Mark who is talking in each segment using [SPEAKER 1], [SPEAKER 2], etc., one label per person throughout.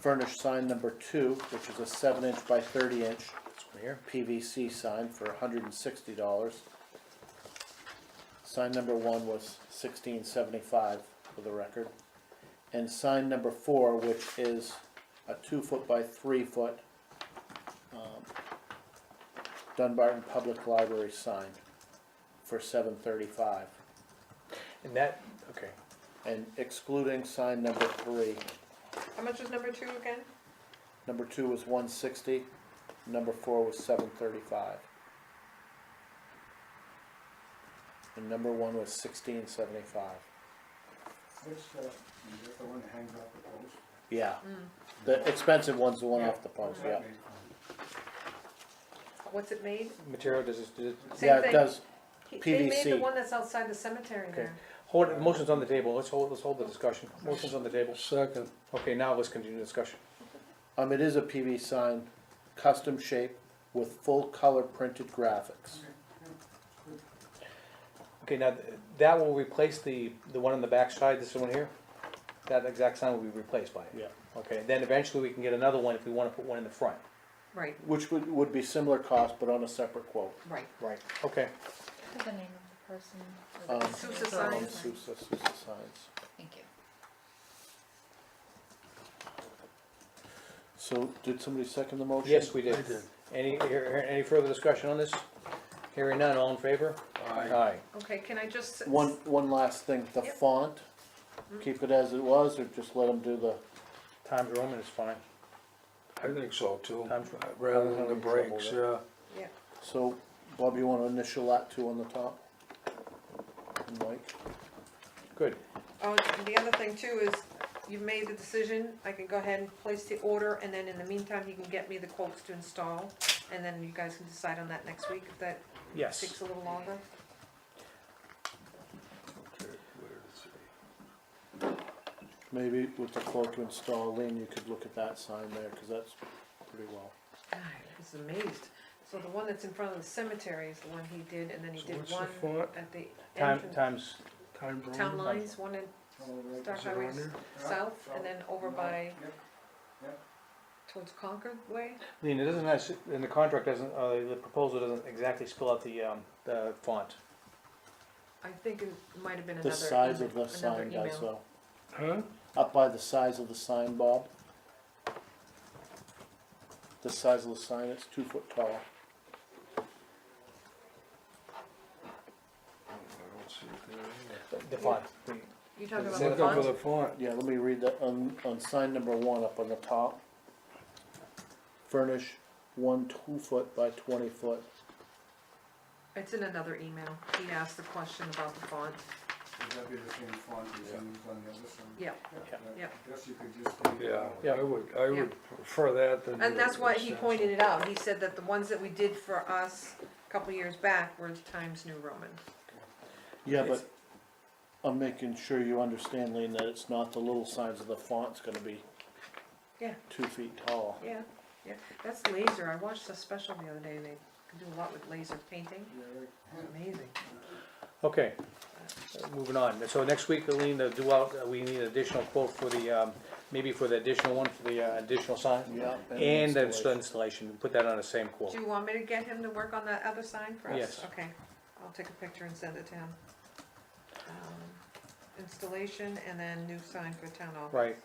[SPEAKER 1] furnished sign number two, which is a seven inch by thirty inch PVC sign for hundred and sixty dollars. Sign number one was sixteen seventy-five for the record. And sign number four, which is a two foot by three foot, um, Dunbarton Public Library sign for seven thirty-five.
[SPEAKER 2] And that, okay,
[SPEAKER 1] And excluding sign number three,
[SPEAKER 3] How much was number two again?
[SPEAKER 1] number two was one sixty, number four was seven thirty-five. And number one was sixteen seventy-five,
[SPEAKER 4] Which, uh, is that the one that hangs off the post?
[SPEAKER 1] yeah.
[SPEAKER 3] Mm.
[SPEAKER 1] The expensive one's the one off the post, yeah.
[SPEAKER 3] What's it made?
[SPEAKER 2] material, does it, does it,
[SPEAKER 3] Same
[SPEAKER 1] Yeah, it
[SPEAKER 3] thing.
[SPEAKER 1] does,
[SPEAKER 3] He- They made the
[SPEAKER 1] PVC.
[SPEAKER 3] one that's outside the cemetery
[SPEAKER 2] Okay.
[SPEAKER 3] there.
[SPEAKER 2] hold, it- motion's on the table, let's hold, let's hold the discussion, motion's on the table.
[SPEAKER 4] Second.
[SPEAKER 2] Okay, now let's continue the discussion.
[SPEAKER 1] um, it is a PV sign, custom shape with full color printed graphics.
[SPEAKER 2] Okay, now, th- that will replace the, the one on the backside, this one here? That exact sign will be replaced by it?
[SPEAKER 1] Yeah.
[SPEAKER 2] Okay, then eventually we can get another one if we wanna put one in the front.
[SPEAKER 3] Right,
[SPEAKER 1] Which would, would be similar cost, but on a separate quote.
[SPEAKER 3] right.
[SPEAKER 2] Right. Okay,
[SPEAKER 5] What's the name of the person? or
[SPEAKER 1] Um,
[SPEAKER 5] the
[SPEAKER 3] Sousa
[SPEAKER 5] company?
[SPEAKER 3] Signs.
[SPEAKER 1] Um, Sousa, Sousa Signs.
[SPEAKER 5] Thank you.
[SPEAKER 1] So, did somebody second the motion?
[SPEAKER 2] yes, we did.
[SPEAKER 4] I did.
[SPEAKER 2] Any, here- any further discussion on this? Hearing none, all in favor? Aye.
[SPEAKER 3] Okay, can I just? s-
[SPEAKER 1] One, one last thing, the
[SPEAKER 3] Yep.
[SPEAKER 1] font, keep it as it was, or just let them do the,
[SPEAKER 2] Times Roman is fine.
[SPEAKER 4] I think so too,
[SPEAKER 2] Times-
[SPEAKER 4] rather
[SPEAKER 2] than the breaks,
[SPEAKER 4] yeah.
[SPEAKER 3] Yeah,
[SPEAKER 1] so, Bob, you wanna initial that too on the top? And Mike,
[SPEAKER 2] Good.
[SPEAKER 3] oh, and the other thing too is, you've made the decision, I can go ahead and place the order, and then in the meantime, he can get me the quotes to install, and then you guys can decide on that next week, if that takes
[SPEAKER 2] Yes.
[SPEAKER 3] a little longer.
[SPEAKER 1] maybe with the quote to install, Lean, you could look at that sign there, cause that's pretty well.
[SPEAKER 3] God, I was amazed. So the one that's in front of the cemetery is the one he did, and then he
[SPEAKER 4] So
[SPEAKER 3] did
[SPEAKER 4] what's the
[SPEAKER 3] one
[SPEAKER 4] font?
[SPEAKER 3] at the
[SPEAKER 2] Time,
[SPEAKER 3] entrance,
[SPEAKER 2] times,
[SPEAKER 4] Time Roman.
[SPEAKER 3] town lines, one in Star
[SPEAKER 4] Is it on
[SPEAKER 3] Highway
[SPEAKER 4] there?
[SPEAKER 3] South, and then over by, towards Concord Way?
[SPEAKER 2] Lean, it doesn't, have- and the contract doesn't, uh, the proposal doesn't exactly spell out the, um, the font.
[SPEAKER 3] I think it might have been another.
[SPEAKER 1] The size of
[SPEAKER 3] email-
[SPEAKER 1] the
[SPEAKER 3] another
[SPEAKER 1] sign, guys,
[SPEAKER 3] email.
[SPEAKER 1] though,
[SPEAKER 4] Huh?
[SPEAKER 1] up by the size of the sign, Bob. The size of the sign, it's two foot tall,
[SPEAKER 4] I don't see it there either.
[SPEAKER 2] The- The font. the-
[SPEAKER 3] You talking
[SPEAKER 2] Does
[SPEAKER 3] about
[SPEAKER 2] it
[SPEAKER 3] the
[SPEAKER 2] say that
[SPEAKER 4] Look
[SPEAKER 3] font?
[SPEAKER 4] over the font.
[SPEAKER 1] yeah, let me read that, on, on sign number one up on the top. Furnish one two foot by twenty foot
[SPEAKER 3] It's in another email. He asked the question about the font.
[SPEAKER 6] Would that be the same font as used on the other side?
[SPEAKER 3] Yeah, Yeah.
[SPEAKER 6] I guess you could just leave it
[SPEAKER 4] Yeah,
[SPEAKER 6] out.
[SPEAKER 4] I would, I would prefer that than.
[SPEAKER 3] and
[SPEAKER 4] the
[SPEAKER 3] that's why he
[SPEAKER 4] extension.
[SPEAKER 3] pointed it out. He said that the ones that we did for us a couple years back were Times New Roman.
[SPEAKER 1] Yeah,
[SPEAKER 2] It's-
[SPEAKER 1] but I'm making sure you understand, Lean, that it's not the little size of the font's gonna be
[SPEAKER 3] Yeah.
[SPEAKER 1] two feet tall.
[SPEAKER 3] Yeah, yeah. That's laser. I watched a special the other day. They can do a lot with laser painting.
[SPEAKER 6] Yeah, right.
[SPEAKER 3] It's amazing.
[SPEAKER 2] Okay, Uh, moving on. So next week, Lean, to do out, uh, we need an additional quote for the, um, maybe for the additional one, for the uh, additional sign?
[SPEAKER 1] Yeah.
[SPEAKER 2] And the
[SPEAKER 1] installation.
[SPEAKER 2] installation, and put that on the same quote.
[SPEAKER 3] Do you want me to get him to work on that other sign for us?
[SPEAKER 2] Yes.
[SPEAKER 3] Okay, I'll take a picture and send it to him. Um, Installation and then new sign for town office.
[SPEAKER 2] Right,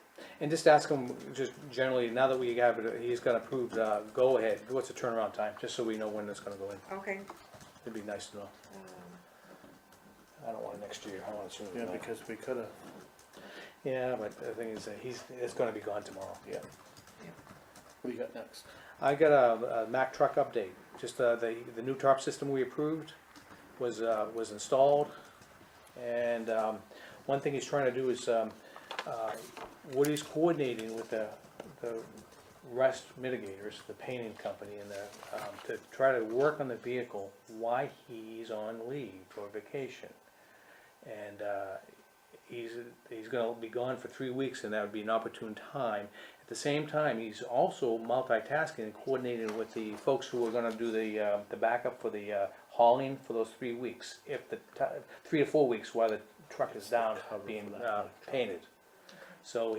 [SPEAKER 2] and just ask him, just generally, now that we have it, he's got approved, uh, go ahead, what's the turnaround time, just so we know when it's gonna go in.
[SPEAKER 3] Okay,
[SPEAKER 2] It'd be nice to know.
[SPEAKER 3] um,
[SPEAKER 2] I don't want it next year, I want it sooner
[SPEAKER 1] Yeah,
[SPEAKER 2] than that.
[SPEAKER 1] because we could've,
[SPEAKER 2] Yeah, but the thing is, that he's, it's gonna be gone tomorrow.
[SPEAKER 1] yeah. What do you got next?
[SPEAKER 2] I got a, a Mack truck update, just, uh, the, the new tarp system we approved was, uh, was installed. And, um, one thing he's trying to do is, um, uh, Woody's coordinating with the, the rust mitigators, the painting company and the, um, to try to work on the vehicle while he's on leave or vacation. And, uh, he's, he's gonna be gone for three weeks and that would be an opportune time. At the same time, he's also multitasking and coordinating with the folks who are gonna do the, uh, the backup for the, uh, hauling for those three weeks. If the, ti- three to four weeks while the truck is down
[SPEAKER 1] Cover for
[SPEAKER 2] being,
[SPEAKER 1] that.
[SPEAKER 2] uh, painted. So